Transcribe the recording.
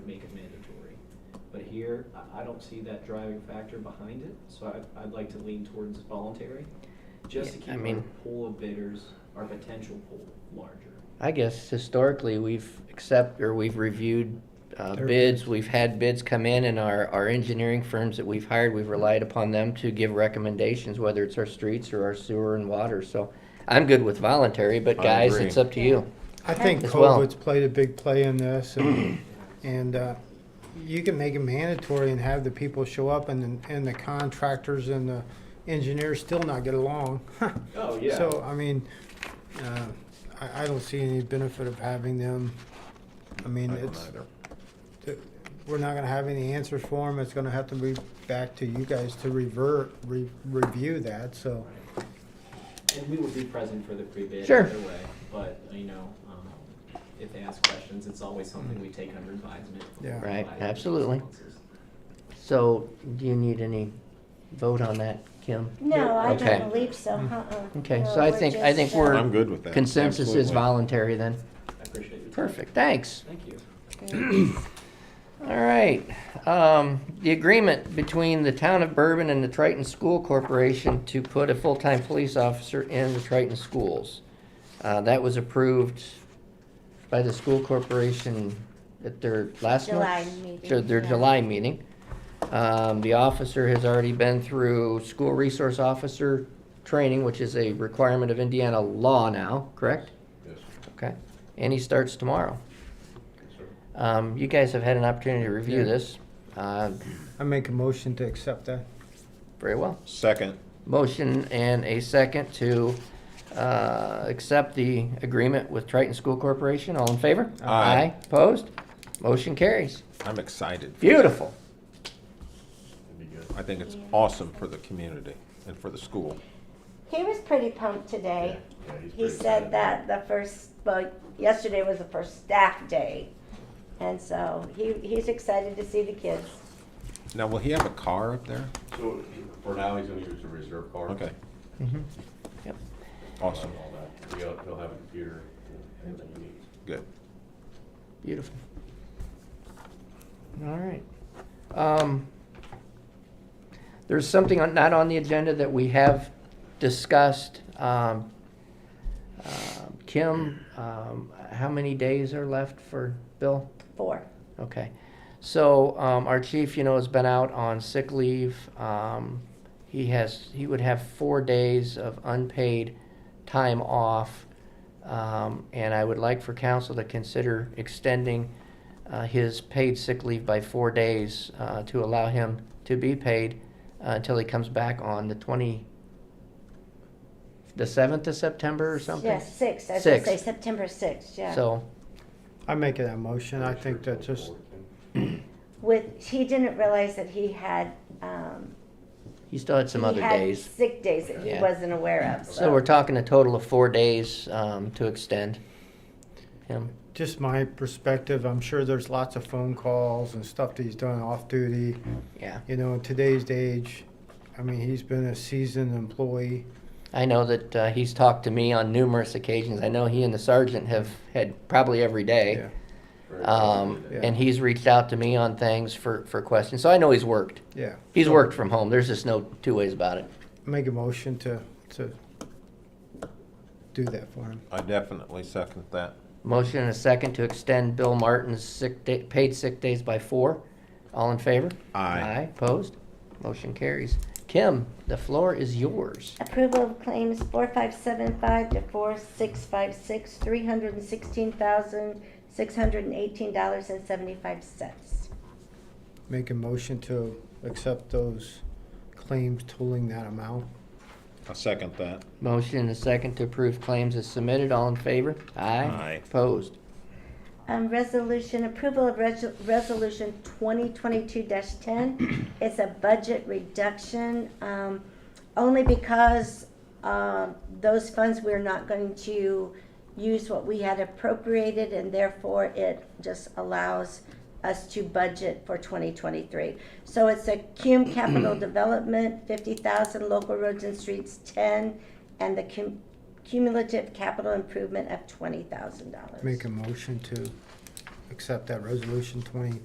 year, I, I don't see that driving factor behind it, so I, I'd like to lean towards voluntary, just to Yeah, keep I our mean- pool of bidders, our potential pool larger. I guess historically, we've accept, or we've reviewed uh, Their bids, we've had bids come in, and our, our engineering firms that we've hired, we've relied upon them to give recommendations, whether it's our streets or our sewer and water, so I'm good with voluntary, but I guys, agree. it's up to you. I think As well. COVID's played a big play in this, and, and uh, you can make it mandatory and have the people show up, and, and the contractors and the engineers still not get along. Oh, yeah. So, I mean, uh, I, I don't see any benefit of having them, I mean, I don't it's, either. th- we're not gonna have any answers for them, it's gonna have to be back to you guys to revert, re- review that, so. And we will be present for the pre-bid Sure. either way, but, you know, um, if they ask questions, it's always something we take under advisement. before Yeah. we Right, provide any absolutely. responses. So, do you need any vote on that, Kim? No, I Okay. Hmm. don't believe so, uh-uh. Okay, No, so I we're think- I think just, uh, we're- I'm good with that. Consensus is absolutely. voluntary then, I appreciate your time. perfect, thanks. Thank you. um, All right, um, the agreement between the town of Bourbon and the Triton School Corporation to put a full-time police officer in the Triton schools. Uh, that was approved by the school corporation at their last July month's- meeting, their- Their yeah. July meeting. Um, the officer has already been through school resource officer training, which is a requirement of Indiana law now, correct? Yes, Okay, and he starts tomorrow. sir. Um, you guys have had an opportunity to review Yeah. this. Uh, I make a motion to accept that. very well. Second, Motion and a second to, uh, accept the agreement with Triton School Corporation. All in favor? Aye. Opposed? Motion carries. I'm excited. Beautiful. I think it's awesome for the community and for the school. He was pretty pumped today. He said that the first, well, yesterday was the first staff day. And so he, he's excited to see the kids. Now, will he have a car up there? So for now, he's gonna use the reserve card. Okay, Mhm. Yep. All awesome, that. He'll, he'll have a computer, everything he needs. good. Beautiful. All right. Um, There's something on- not on the agenda that we have discussed. Um, uh, Kim, um, how many days are left for Bill? Four. Okay. So, um, our chief, you know, has been out on sick leave. Um, he has, he would have four days of unpaid time off. Um, and I would like for council to consider extending, uh, his paid sick leave by four days, uh, to allow him to be paid uh, until he comes back on the twenty, the seventh of September or something? Yeah, six. I was gonna Six. say September sixth, yeah. So, I make that motion, I think that just, With, he didn't realize that he had, um. he still had some he other had days. Sick days that he Yeah. wasn't aware of, so. So we're talking a total of four days um, to extend him. just my perspective, I'm sure there's lots of phone calls and stuff that he's done off duty. Yeah, You know, in today's age, I mean, he's been a seasoned employee. I know that uh, he's talked to me on numerous occasions. I know he and the sergeant have had probably every day, um, Very complicated. Yeah. and he's reached out to me on things for for questions. So I know he's worked. Yeah. He's worked from home. There's just no two ways about it. Make a motion to, to do that for him. I definitely second that. Motion and a second to extend Bill Martin's sick day, paid sick days by four. All in favor? Aye. Aye. Opposed? Motion carries. Kim, the floor is yours. Approval of claims four five seven five to four six five six, three hundred and sixteen thousand, six hundred and eighteen dollars and seventy-five cents. Make a motion to accept those claims totaling that amount. I second that. Motion and a second to approve claims as submitted. All in favor? Aye. Aye. Opposed? Um, resolution, approval of res- resolution twenty twenty-two ten. It's a budget reduction, um, only because, um, those funds, we're not going to use what we had appropriated, and therefore it just allows us to budget for twenty twenty-three. So it's a CUM capital development, fifty thousand, local roads and streets ten, and the cum- cumulative capital improvement of twenty thousand dollars. Make a motion to accept that resolution twenty